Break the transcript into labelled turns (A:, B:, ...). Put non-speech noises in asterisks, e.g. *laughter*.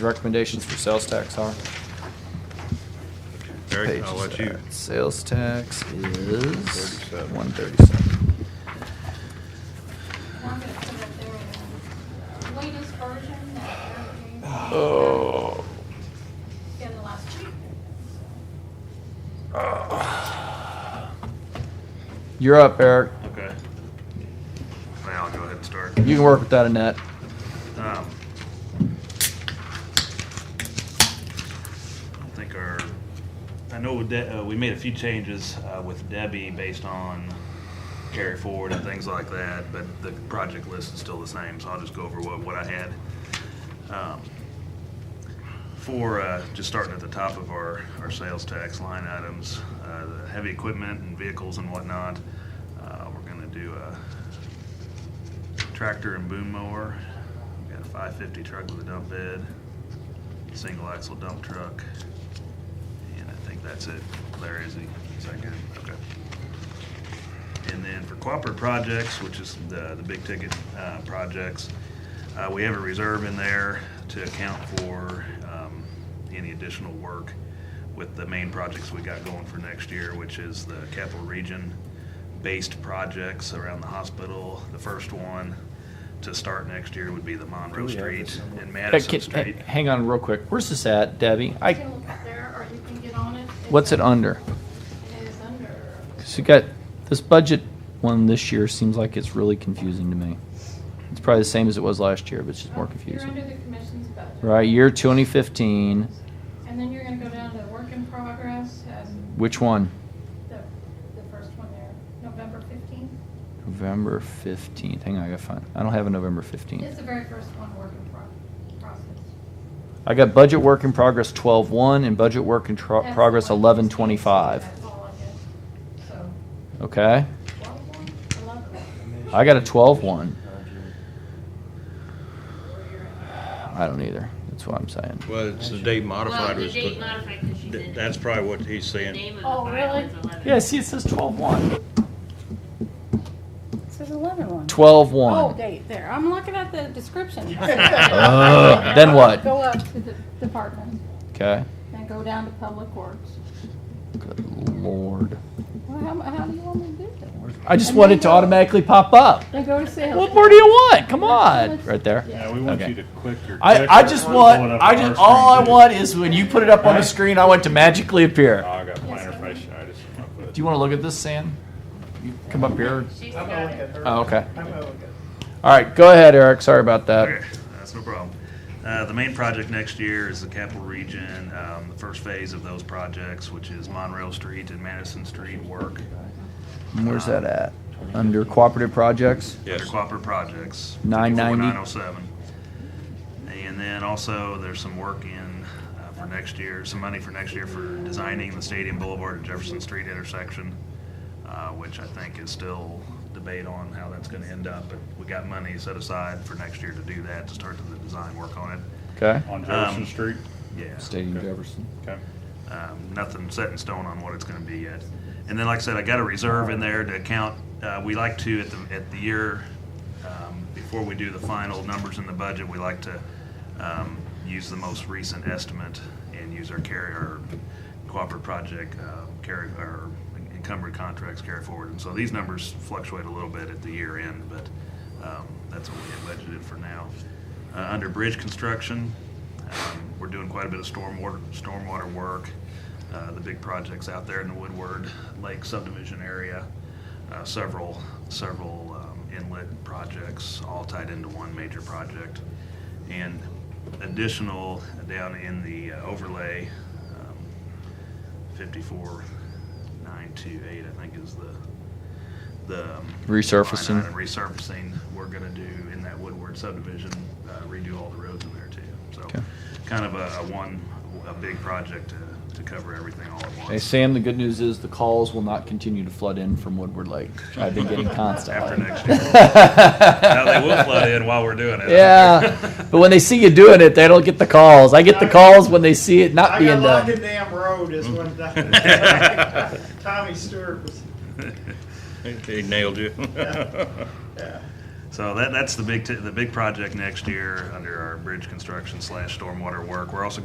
A: recommendations for sales tax are?
B: Eric, I'll let you.
A: Sales tax is
B: 37.
A: one thirty-seven.
C: And I'm gonna put up their latest version that Eric gave me
A: Oh.
C: in the last week.
A: You're up, Eric.
B: Okay. Now I'll go ahead and start.
A: You can work with that, Annette.
B: Um, I don't think our, I know with De- uh, we made a few changes uh, with Debbie based on carry forward and things like that, but the project list is still the same, so I'll just go over what, what I had. Um, For, uh, just starting at the top of our, our sales tax line items, uh, the heavy equipment and vehicles and whatnot, uh, we're gonna do a tractor and boom mower. We got a five fifty truck with a dump bed, single axle dump truck, and I think that's it. Larry, is he, is that good? Okay. And then for cooperative projects, which is the, the big ticket, uh, projects, uh, we have a reserve in there to account for, um, any additional work with the main projects we got going for next year, which is the capital region based projects around the hospital. The first one to start next year would be the Monroe Street and Madison Street.
A: Hang on real quick. Where's this at, Debbie?
C: You
A: I,
C: can look up there, or you can get on it. It's-
A: what's it under?
C: It is under,
A: Cause you got, this budget one this year seems like it's really confusing to me. It's probably the same as it was last year, but it's just more
C: you're under
A: confusing.
C: the commission's budget.
A: Right, year twenty fifteen,
C: And then you're gonna go down to work in progress, as
A: which one?
C: the, the first one there, November fifteenth.
A: November fifteenth. Hang on, I gotta find, I don't have a November fifteenth.
C: It's the very first one, work in pro- process.
A: I got budget work in progress twelve one and budget work in tro-
C: That's the
A: progress
C: one
A: eleven
C: that's
A: twenty five.
C: That's all I get. So,
A: Okay,
C: twelve one, eleven one,
A: I got a twelve one. I don't either. That's what I'm saying.
D: Well, it's the date modified
E: Well, the
D: was,
E: date modified because she's in.
D: Th- that's probably what he's
E: The
D: saying.
E: name of the
C: Oh,
E: file
C: really?
E: is 11.
A: Yeah, see, it says twelve one.
F: It says 11 one.
A: Twelve
F: Oh,
A: one.
F: date there. I'm looking at the *laughs* description.
A: Ugh, then what?
F: Go up.
C: to the department,
A: Okay.
C: then go down to public works.
A: Good lord.
F: Well, how, how do you want me to do that?
A: I just want it to automatically pop up.
F: They go to sales.
A: What more do you want? Come on, right there.
G: Yeah, we want
A: Okay.
G: you to quicker.
A: I, I
G: quicker
A: just
G: pull
A: want
G: it up
A: I
G: on
A: just
G: our
A: all I
G: screen, too.
A: want is when you put it up on the screen, I want it to magically
G: Oh,
A: appear.
G: I got plantar fascia. I just want to put it.
A: Do you want to look at this, Sam? You come up here.
E: She's got it.
A: Oh, okay. All right, go ahead, Eric. Sorry about that.
B: Okay, That's no problem. Uh, The main project next year is the capital region, um, the first phase of those projects, which is Monroe Street and Madison Street work.
A: Where's that at? Under cooperative projects?
B: Under cooperative projects.
A: 990.
B: 907. And then also, there's some work in uh, for next year, some money for next year for designing the Stadium Boulevard and Jefferson Street intersection, uh, which I think is still debate on how that's going to end up, but we got money set aside for next year to do that, to start the design work on it.
A: Okay.
G: On Jefferson
B: Um,
G: Street.
B: Yeah.
A: Jefferson.
G: Okay.
B: Um, nothing set in stone on what it's gonna be yet. And then, like I said, I got a reserve in there to account, uh, we like to, at the, at the year, um, before we do the final numbers in the budget, we like to, um, use the most recent estimate and use our carry, our cooperative project, uh, carry, our encumbered contracts carry forward. And so these numbers fluctuate a little bit at the year end, but, um, that's what we had budgeted for now. Uh, under bridge construction, um, We're doing quite a bit of stormwater, stormwater work. Uh, The big projects out there in the Woodward Lake subdivision area, uh, several, several um, inlet projects, all tied into one major project. And additional down in the uh, overlay, um, 54928, I think is the, the. um,
A: Resurfacing.
B: line item, Resurfacing, we're gonna do in that Woodward subdivision, uh, redo all the roads in there too. So
A: Okay.
B: kind of a, a one, a big project to, to cover everything all at
A: Hey,
B: once.
A: Sam, the good news is the calls will not continue to flood in from Woodward Lake. I've been getting
B: After
A: constantly. *laughs*
B: next year. *laughs* Now they will flood in while we're doing it.
A: Yeah, *laughs* but when they see you doing it, they don't get the calls. I get the calls when they see it not
H: I got
A: being
H: locked in
A: done.
H: damn road is
A: *laughs*
H: when *laughs* that- Tommy Stewart was,
D: He nailed you.
H: yeah.
B: *laughs* So that, that's the big, t- the big project next year under our bridge construction slash stormwater work. We're also gonna